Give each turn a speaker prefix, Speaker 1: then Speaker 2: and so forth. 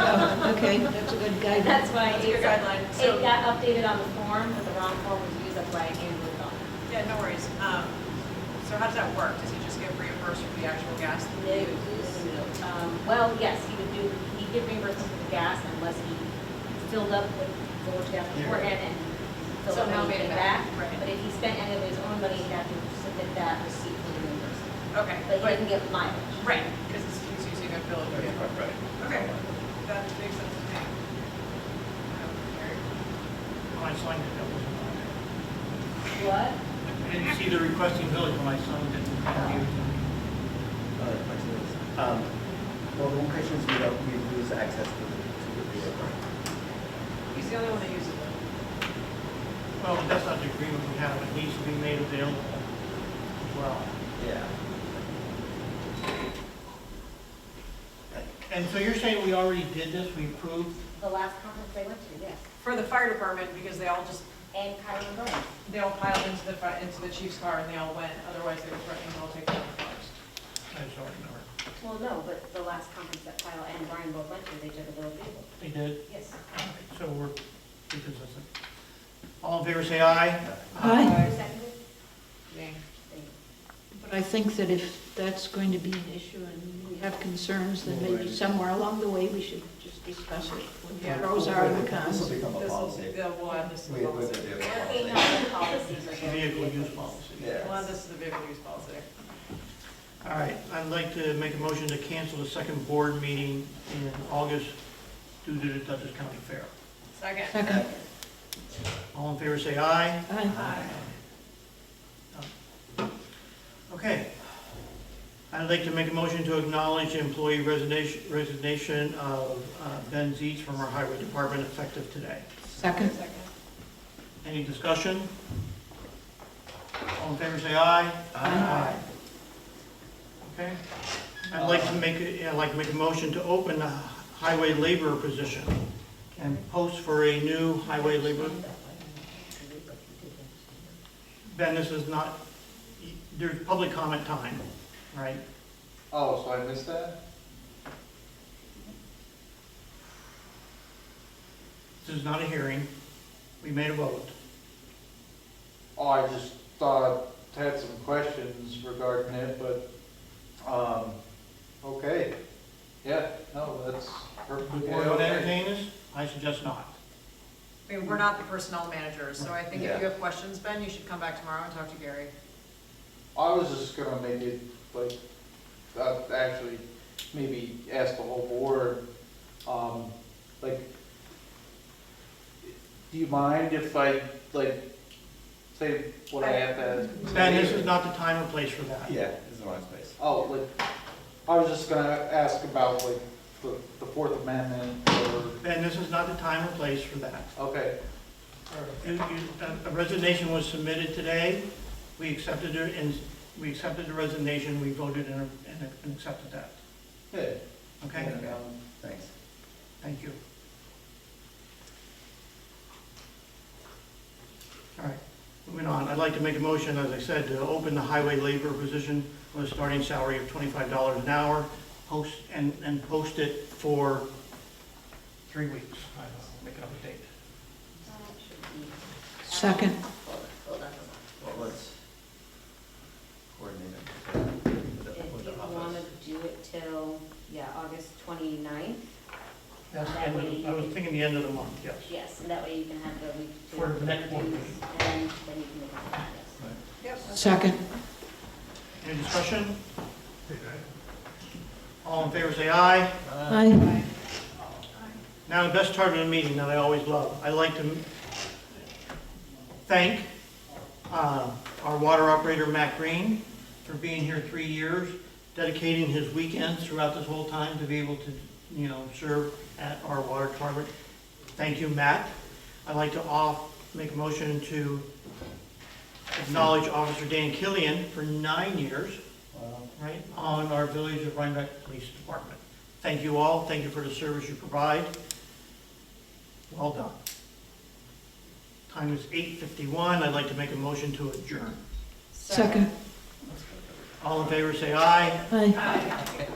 Speaker 1: Oh, Okay, that's a good guideline.
Speaker 2: That's why
Speaker 3: That's your
Speaker 2: it
Speaker 3: guideline,
Speaker 2: got,
Speaker 3: so-
Speaker 2: it got updated on the form, but the wrong form was used, that's why it came with on.
Speaker 3: Yeah, no worries. Um, so how does that work? Does he just get reimbursed for the actual gas that
Speaker 2: No,
Speaker 3: he
Speaker 2: no,
Speaker 3: used?
Speaker 2: no, no. Um, Well, yes, he would do, he'd get reimbursed for the gas unless he filled up with forward gas beforehand and filled up
Speaker 3: Somehow
Speaker 2: when he
Speaker 3: made it
Speaker 2: came
Speaker 3: back,
Speaker 2: back.
Speaker 3: right.
Speaker 2: But if he spent any of his own money, he'd have to submit that receipt for the reimbursement.
Speaker 3: Okay,
Speaker 2: But he
Speaker 3: but,
Speaker 2: didn't get mileage.
Speaker 3: right, because he's using a bill.
Speaker 4: Right, right, right.
Speaker 3: Okay, that makes sense to me. Um, Eric?
Speaker 5: When I signed it, that wasn't on there.
Speaker 2: What?
Speaker 5: I didn't see the requesting village when I signed it.
Speaker 4: Other questions? Um, Well, the one question is we don't, we lose access to the, to the video.
Speaker 3: He's the only one that uses it.
Speaker 5: Well, but that's not the agreement we have, it needs to be made available as well.
Speaker 4: Yeah.
Speaker 5: And so you're saying we already did this, we approved?
Speaker 2: The last conference they went to, yes.
Speaker 3: For the fire department, because they all just,
Speaker 2: And Kylie and Brian.
Speaker 3: they all piled into the, fi- into the chief's car and they all went, otherwise they were threatening to all take down the cars.
Speaker 5: I just don't remember.
Speaker 2: Well, no, but the last conference that Kyle and Brian both went to, they took a little vehicle.
Speaker 5: They did,
Speaker 2: Yes.
Speaker 5: All right, so we're inconsistent. All in favor, say aye.
Speaker 1: Aye.
Speaker 2: Who seconded?
Speaker 3: Nay.
Speaker 2: Thank you.
Speaker 1: But I think that if that's going to be an issue and we have concerns, then maybe somewhere along the way, we should just discuss it. What the pros are and the
Speaker 4: This
Speaker 1: cons.
Speaker 4: will become a
Speaker 3: This will,
Speaker 4: policy.
Speaker 3: the- we'll add this to the
Speaker 4: We, we
Speaker 3: policy.
Speaker 4: do a
Speaker 2: They
Speaker 4: policy.
Speaker 2: have the policies or their
Speaker 5: Vehicle use
Speaker 2: vehicles.
Speaker 5: policy.
Speaker 3: We'll add
Speaker 4: Yes.
Speaker 3: this to the vehicle use policy.
Speaker 5: All right, I'd like to make a motion to cancel the second board meeting in August due to the Dutchess County Fair.
Speaker 3: Second.
Speaker 1: Second.
Speaker 5: All in favor, say aye.
Speaker 1: Aye.
Speaker 3: Aye.
Speaker 5: Okay. I'd like to make a motion to acknowledge employee resignation, resignation of uh, Ben Dietz from our highway department effective today.
Speaker 1: Second.
Speaker 3: Second.
Speaker 5: Any discussion? All in favor, say aye.
Speaker 1: Aye.
Speaker 5: Okay. I'd like to make, a- I'd like to make a motion to open the highway laborer position and post for a new highway laborer. Ben, this is not, there's public comment time, right?
Speaker 6: Oh, so I missed that?
Speaker 5: This is not a hearing. We made a vote.
Speaker 6: Oh, I just thought, had some questions regarding it, but, um, okay. Yeah, no, that's
Speaker 5: The
Speaker 6: perfectly
Speaker 5: board would
Speaker 6: okay.
Speaker 5: entertain this? I suggest not.
Speaker 3: I mean, we're not the personnel managers, so I think if you
Speaker 6: Yeah.
Speaker 3: have questions, Ben, you should come back tomorrow and talk to Gary.
Speaker 6: I was just gonna make it, like, uh, actually, maybe ask the whole board, um, like, do you mind if I, like, say what I have to ask?
Speaker 5: Ben, this is not the time and place for that.
Speaker 4: Yeah, this is the wrong space.
Speaker 6: Oh, like, I was just gonna ask about like the, the Fourth Amendment or,
Speaker 5: Ben, this is not the time and place for that.
Speaker 6: okay,
Speaker 5: You- you- A a resignation was submitted today. We accepted it and we accepted the resignation. We voted and and accepted that.
Speaker 6: yeah.
Speaker 5: Okay?
Speaker 4: Yeah, um, Thanks.
Speaker 5: Thank you. All right, moving on. I'd like to make a motion, as I said, to open the highway labor position with a starting salary of twenty-five dollars an hour, post, and, and post it for three weeks. I'll Make it up a date.
Speaker 1: Second.
Speaker 2: Hold on, hold on.
Speaker 4: Well, let's coordinate it with the-
Speaker 2: If
Speaker 4: with the
Speaker 2: you want
Speaker 4: office.
Speaker 2: to do it till, yeah, August 29th,
Speaker 5: That's the end of, I was thinking the end of the month, yes.
Speaker 2: yes, and that way you can have the week to.
Speaker 5: For the next one.
Speaker 2: And then you can make it, yes.
Speaker 3: Yep.
Speaker 1: Second.
Speaker 5: Any discussion? All in favor, say aye.
Speaker 1: Aye.
Speaker 5: Now, the best part of the meeting that I always love, I like to thank uh, our water operator, Matt Green, for being here three years, dedicating his weekends throughout this whole time to be able to, you know, serve at our water department. Thank you, Matt. I'd like to off, make a motion to acknowledge Officer Dan Killian for nine years,
Speaker 4: Wow.
Speaker 5: right, on our Village of Rhinebeck Police Department. Thank you all, thank you for the service you provide. Well done. Time is eight fifty-one, I'd like to make a motion to adjourn.
Speaker 1: Second.
Speaker 5: All in favor, say aye.
Speaker 1: Aye.
Speaker 3: Aye.